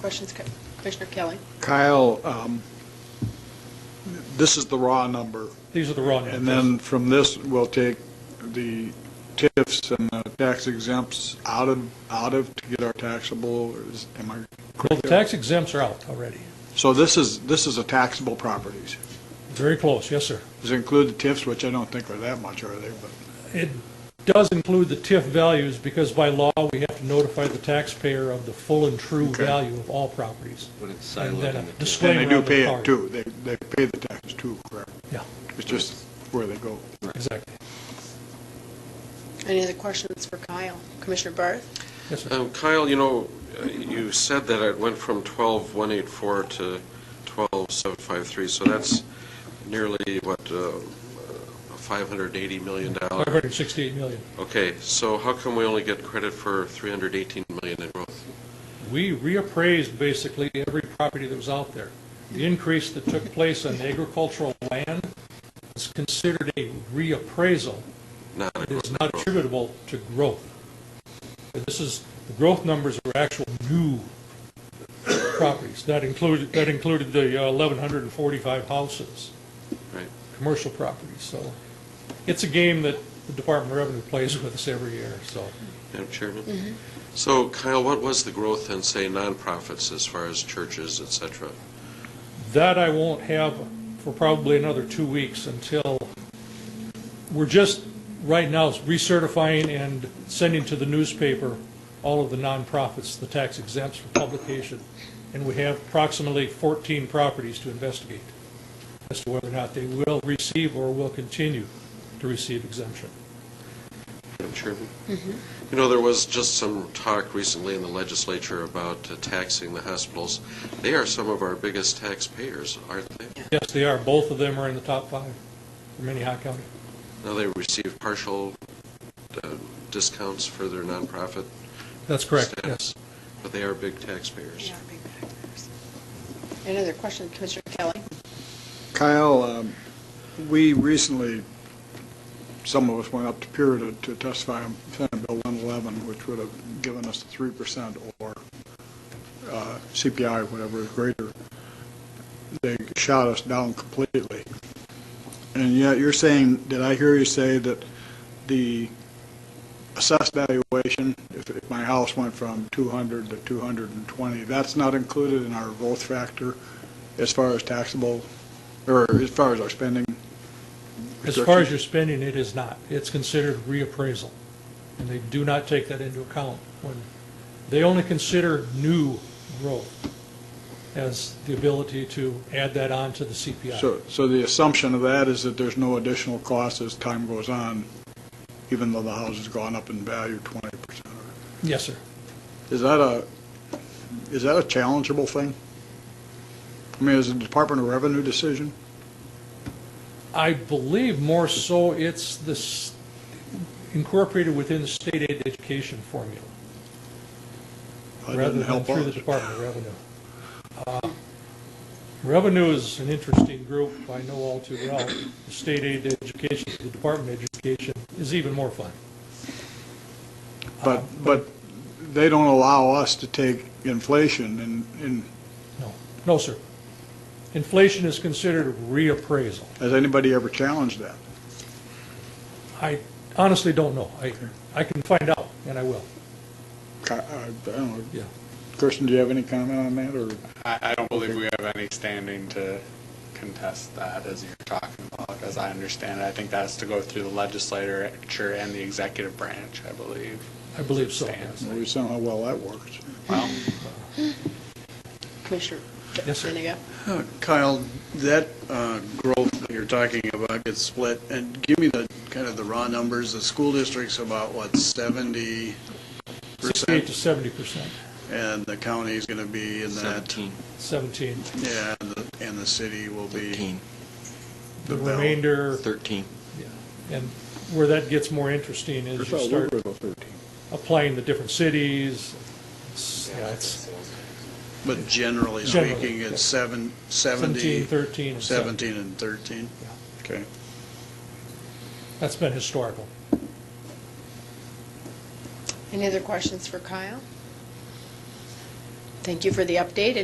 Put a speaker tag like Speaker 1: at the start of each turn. Speaker 1: Questions, Co- Commissioner Kelly?
Speaker 2: Kyle, um, this is the raw number,
Speaker 3: These are the raw numbers.
Speaker 2: and then from this, we'll take the TIFs and the tax exempts out of, out of to get our taxable, or is, am I
Speaker 3: Well,
Speaker 2: correct?
Speaker 3: the
Speaker 2: there?
Speaker 3: tax exempts are out already.
Speaker 2: So this is, this is a taxable properties.
Speaker 3: Very close, yes, sir.
Speaker 2: Does it include the TIFs, which I don't think are that much, are they? But,
Speaker 3: It does include the TIF values because by law, we have to notify the taxpayer of the full and true
Speaker 2: Okay.
Speaker 3: value of all properties.
Speaker 4: But it's
Speaker 3: And
Speaker 4: siloed
Speaker 3: then
Speaker 4: in
Speaker 3: a
Speaker 4: the TIF.
Speaker 3: disclaimer
Speaker 2: and they do
Speaker 3: on the
Speaker 2: pay
Speaker 3: card.
Speaker 2: it too, they, they pay the taxes too, correct?
Speaker 3: Yeah,
Speaker 2: It's just where they go.
Speaker 3: exactly.
Speaker 1: Any other questions for Kyle? Commissioner Barth?
Speaker 3: Yes, sir.
Speaker 5: Um, Kyle, you know, uh, you said that it went from 12184 to 12753, so that's nearly, what, uh, a $580 million? dollar-
Speaker 3: 568 million.
Speaker 5: Okay, so how come we only get credit for 318 million in growth?
Speaker 3: We reappraised basically every property that was out there. The increase that took place on agricultural land is considered a reappraisal.
Speaker 5: Not a
Speaker 3: It is
Speaker 5: growth.
Speaker 3: not attributable to growth. And This is, the growth numbers are actual new properties. That included, that included the uh, 1,145 houses,
Speaker 5: Right.
Speaker 3: commercial properties, so it's a game that the Department of Revenue plays with us every year, so.
Speaker 5: Madam Chairman? So Kyle, what was the growth in, say, nonprofits as far as churches, et cetera?
Speaker 3: That I won't have for probably another two weeks until, we're just, right now, recertifying and sending to the newspaper all of the nonprofits, the tax exempts for publication, and we have approximately 14 properties to investigate as to whether or not they will receive or will continue to receive exemption.
Speaker 5: Madam Chairman? You know, there was just some talk recently in the legislature about uh, taxing the hospitals. They are some of our biggest taxpayers, aren't they?
Speaker 3: Yes, they are, both of them are in the top five for Minnehaha County.
Speaker 5: Now they receive partial uh, discounts for their nonprofit
Speaker 3: That's correct, yes.
Speaker 5: status, but they are big taxpayers.
Speaker 1: Any other questions, Commissioner Kelly?
Speaker 2: Kyle, um, we recently, some of us went up to Pura to- to testify on Senate Bill 111, which would have given us 3% or uh, CPI, whatever is greater. They shot us down completely. And yet you're saying, did I hear you say that the assessed valuation, if if my house went from 200 to 220, that's not included in our growth factor as far as taxable or as far as our spending.
Speaker 3: As far
Speaker 2: restrictions.
Speaker 3: as your spending, it is not. It's considered reappraisal, and they do not take that into account when, they only consider new growth as the ability to add that on to the CPI.
Speaker 2: So, so the assumption of that is that there's no additional cost as time goes on, even though the house has gone up in value twenty percent.
Speaker 3: Yes, sir.
Speaker 2: Is that a, is that a challengeable thing? I mean, is it a Department of Revenue decision?
Speaker 3: I believe more so it's this incorporated within the state aid education formula.
Speaker 2: That doesn't
Speaker 3: rather than
Speaker 2: help
Speaker 3: through the
Speaker 2: us.
Speaker 3: Department of Revenue. Uh, Revenue is an interesting group, I know all too well. The State aid to education, the Department of Education is even more fun.
Speaker 2: But, but they don't allow us to take inflation and, and
Speaker 3: No, no, sir. Inflation is considered a reappraisal.
Speaker 2: has anybody ever challenged that?
Speaker 3: I honestly don't know. I, I can find out, and I will.
Speaker 2: Ki- uh, I don't know.
Speaker 3: Yeah.
Speaker 2: Kirsten, do you have any comment on that, or?
Speaker 6: I, I don't believe we have any standing to contest that as you're talking about, as I understand it. I think that has to go through the legislature and the executive branch, I believe.
Speaker 3: I believe so.
Speaker 6: Stands.
Speaker 2: Well, We saw how well that works.
Speaker 6: Well,
Speaker 1: Commissioner
Speaker 3: Yes, sir.
Speaker 1: Benega?
Speaker 7: Uh, Kyle, that uh, growth that you're talking about gets split, and give me the, kind of the raw numbers. The school district's about, what, 70%?
Speaker 3: 68 to 70 percent,
Speaker 7: And the county's going to be in that,
Speaker 4: 17,
Speaker 3: 17.
Speaker 7: yeah, and the, and the city will be,
Speaker 4: 13,
Speaker 3: The
Speaker 7: The bell.
Speaker 3: remainder,
Speaker 4: 13.
Speaker 3: and where that gets more interesting is you start applying the different cities. It's- Yeah, it's
Speaker 7: but generally
Speaker 3: Generally,
Speaker 7: speaking,
Speaker 3: yeah.
Speaker 7: it's seven,
Speaker 3: 17,
Speaker 7: 70,
Speaker 3: 13, and 17.
Speaker 7: 17 and 13. Okay.
Speaker 3: That's been historical.
Speaker 1: Any other questions for Kyle? Thank you for the update,